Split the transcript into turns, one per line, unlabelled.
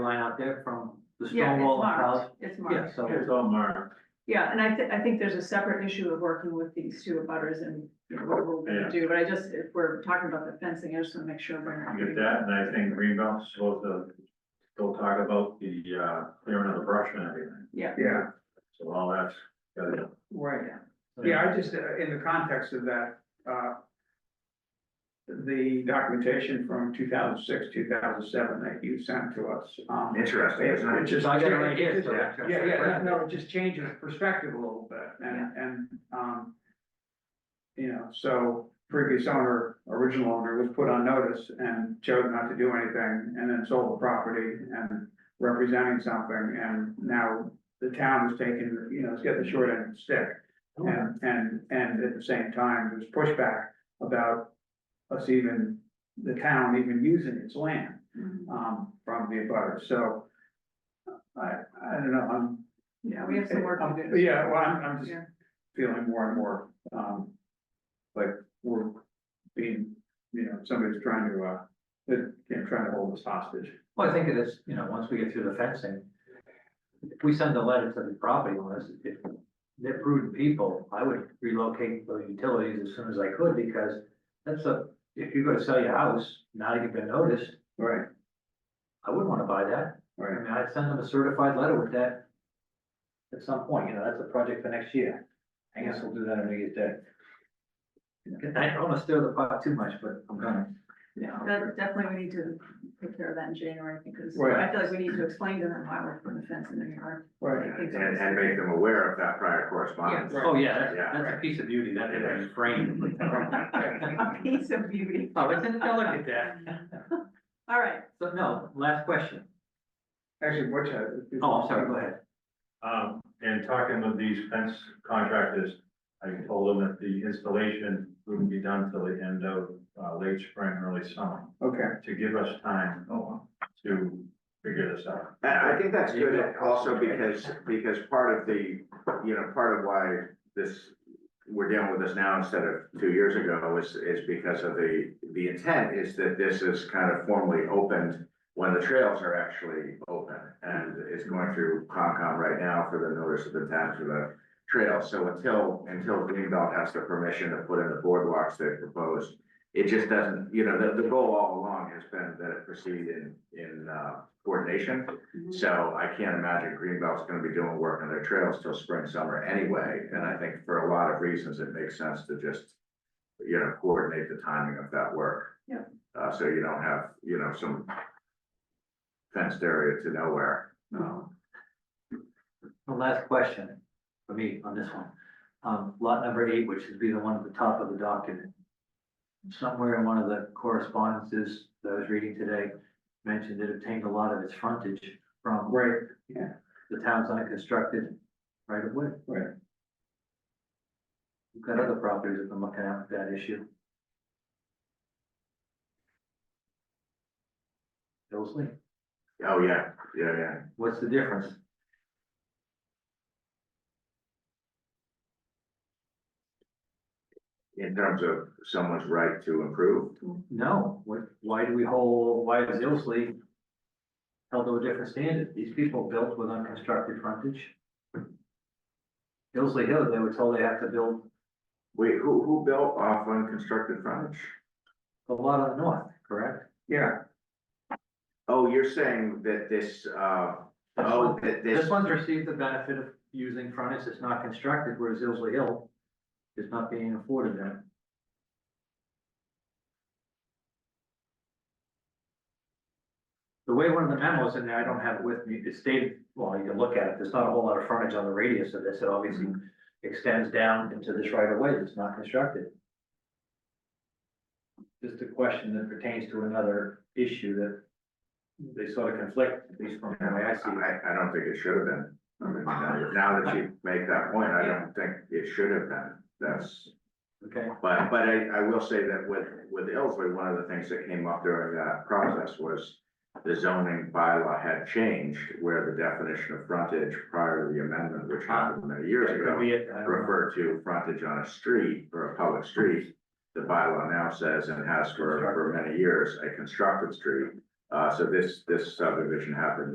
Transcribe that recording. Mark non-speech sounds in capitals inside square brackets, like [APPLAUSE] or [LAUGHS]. line out there from the
Yeah,
stone
it's
wall and house.
marked, it's
Yeah,
marked,
so,
It's all marked,
yeah, and I thi- I think there's a separate issue of working with these two abutters and you know, what we're
Yeah.
gonna do, but I just, if we're talking about the fencing, I just wanna make sure we're not.
you get that, and I think Greenbelt's supposed to go talk about the, uh, clearing of the brush and everything.
Yeah,
Yeah,
So all that's, gotta go.
right. Yeah, I just, uh, in the context of that, uh, the documentation from two thousand six, two thousand seven that you sent to us. um,
Interesting, isn't it?
It just.
I got it right here, so-
Yeah, yeah, yeah, no, no, it just changes perspective a little bit and, and, um, you know, so previous owner, original owner was put on notice and chose not to do anything and then sold the property and representing something and now the town is taking, you know, it's getting the short end of the stick. And, and, and at the same time, there's pushback about us even, the town even using its land,
Mhm.
um, from the abutters. so. I, I don't know, I'm.
yeah, we have some work to do.
Yeah, well, I'm, I'm just
Yeah.
feeling more and more, um, like we're being, you know, somebody's trying to, uh, that, you know, trying to hold us hostage.
well, I think it is, you know, once we get through the fencing, if we send a letter to the property owners, if they're prudent people, I would relocate the utilities as soon as I could, because that's a, if you're gonna sell your house, now you've been noticed,
Right,
I wouldn't wanna buy that. I
right.
mean, I'd send them a certified letter with that at some point, you know, that's a project for next year. I guess we'll do that on New Year's Day. I don't wanna stir the pot too much, but I'm gonna.
That, definitely, we need to take care of that in January, because
Right.
I feel like we need to explain to them why we're putting a fence in their yard.
Right.
And, and make them aware of that prior correspondence.
Right.
Oh, yeah, that's,
Yeah.
that's a piece of beauty, that is a frame.
A [LAUGHS] piece of beauty.
[LAUGHS] Oh, it's a delicate that.
All right,
So, no, last question.
[LAUGHS] Actually, which, uh.
Oh, I'm sorry, go ahead.
Um, and talking with these fence contractors, I told them that the installation wouldn't be done till the end of, uh, late spring, early summer,
Okay,
to give us time
Oh,
to figure this out.
And I think that's
You
good
know,
also
possibly.
because, because part of the, you know, part of why this, we're dealing with this now instead of two years ago is, is because of the, the intent is that this is kind of formally opened when the trails are actually open and it's going through Concom right now for the notice of intent for the trail. So until, until Greenbelt has the permission to put in the boardwalks they proposed, it just doesn't, you know, the, the goal all along has been that it proceed in, in, uh, coordination.
Mm-hmm.
So I can't imagine Greenbelt's gonna be doing work on their trails till spring, summer anyway, and I think for a lot of reasons, it makes sense to just. You know, coordinate the timing of that work.
Yeah.
Uh, so you don't have, you know, some. Fenced area to nowhere, no.
Oh. The last question for me on this one. Um, lot number eight, which would be the one at the top of the document. Somewhere in one of the correspondences that I was reading today, mentioned it obtained a lot of its frontage from
right,
the town's unconstructed right of way.
Right.
We've got other properties that have been looking at that issue. Hillsley,
Oh, yeah, yeah, yeah.
what's the difference?
In terms of someone's right to improve,
No, what, why do we hold, why is Hillsley held to a different standard? These people built with unconstructed frontage. Hillsley Hill, they were told they have to build
wait, who, who built off unconstructed frontage?
a lot on the north, correct?
yeah,
Oh, you're saying that this, uh, oh, that this.
This one's received the benefit of using frontage that's not constructed, whereas Hillsley Hill is not being afforded that. The way one of the memos in there, I don't have it with me, it stated, well, you can look at it, there's not a whole lot of frontage on the radius of this, it obviously extends down into this right of way that's not constructed. Just a question that pertains to another issue that they sort of conflict, at least from the way I see it.
I, I don't think it should have been. I mean, now- now that you make that point, I don't think it should have been. That's,
Okay,
but, but I, I will say that with, with Ilsley, one of the things that came up during that process was the zoning bylaw had changed where the definition of frontage prior to the amendment, which happened many years
that
ago
could be it, I don't know.
refer to frontage on a street or a public street. The bylaw now says and has for, for many years, a constructed street. Uh, so this, this subdivision happened